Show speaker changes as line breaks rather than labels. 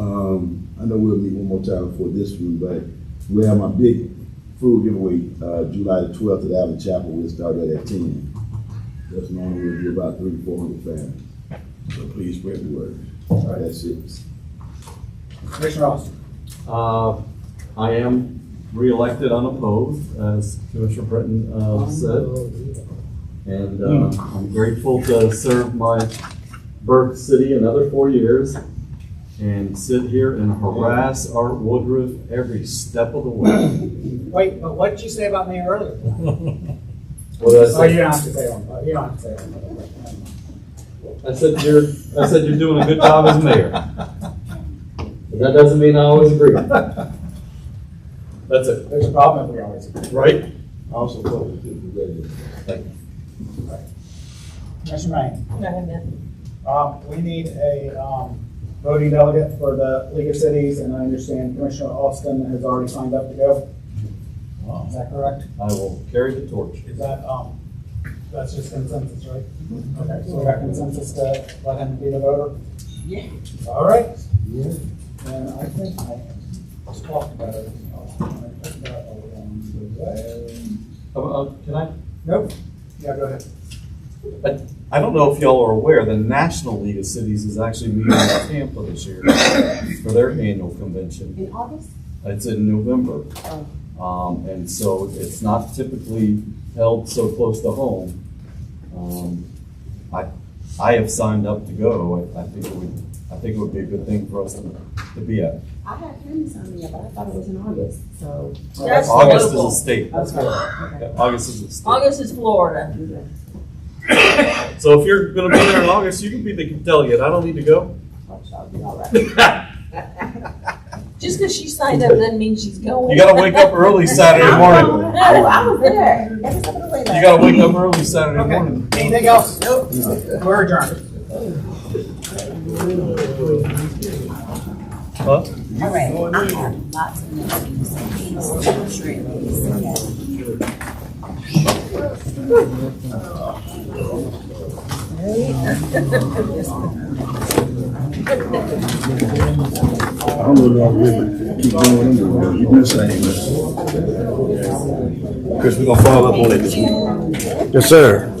Um, know we'll meet one more time for this one, but we have my big food giveaway, uh, July the twelfth at Allen Chapel, we'll start that at ten. That's normally we'll do about three, four hundred families, so please spread the word, that's it.
Commissioner Austin.
Uh, I am reelected unopposed, as Commissioner Britton uh, said. And uh, I'm grateful to serve my Burke City another four years and sit here and harass Art Woodruff every step of the way.
Wait, but what did you say about me earlier?
What did I
Oh,
say?
you don't have to say on, you don't have to say on.
I said you're, I said you're doing a good job as mayor. But that doesn't mean I always agree. That's it,
There's a problem if we always agree.
right?
Also, public, too, congratulations.
Commissioner Rain,
Not enough.
um, we need a, um, voting delegate for the League of Cities, and I understand Commissioner Austin has already signed up to go. Is that correct?
I will carry the torch.
Is that, um, that's just consensus, right? Okay, so we got consensus to let him be the voter?
Yeah.
All right. And I think I just talked about it. I put that along the way.
Uh, uh, Can I
Nope. Yeah, go ahead.
But I don't know if y'all are aware, the National League of Cities is actually meeting in Tampa this year for their annual convention.
In August?
It's in November.
Oh.
Um, and so it's not typically held so close to home. Um, I, I have signed up to go. I, I think it would, I think it would be a good thing for us to, to be at.
I had Candace on me, but I thought it was in August, so.
That's
August is
local.
a state.
That's
Yeah, August is a state.
August is Florida.
So if you're gonna be there in August, you can be the delegate. I don't need to go.
I'll be all right.
Just because she signed up doesn't mean she's going.
You gotta wake up early Saturday morning.
No, I was there. Every step of the way there.
You gotta wake up early Saturday
Okay.
morning.
Anything else? Nope. We're adjourned.
Huh?
All right, I have lots of notes, and things, I'm sure it is, yeah.
I don't know about you, but keep going, anyway. you do the same. Chris, we gonna follow up on it.
Yes, sir.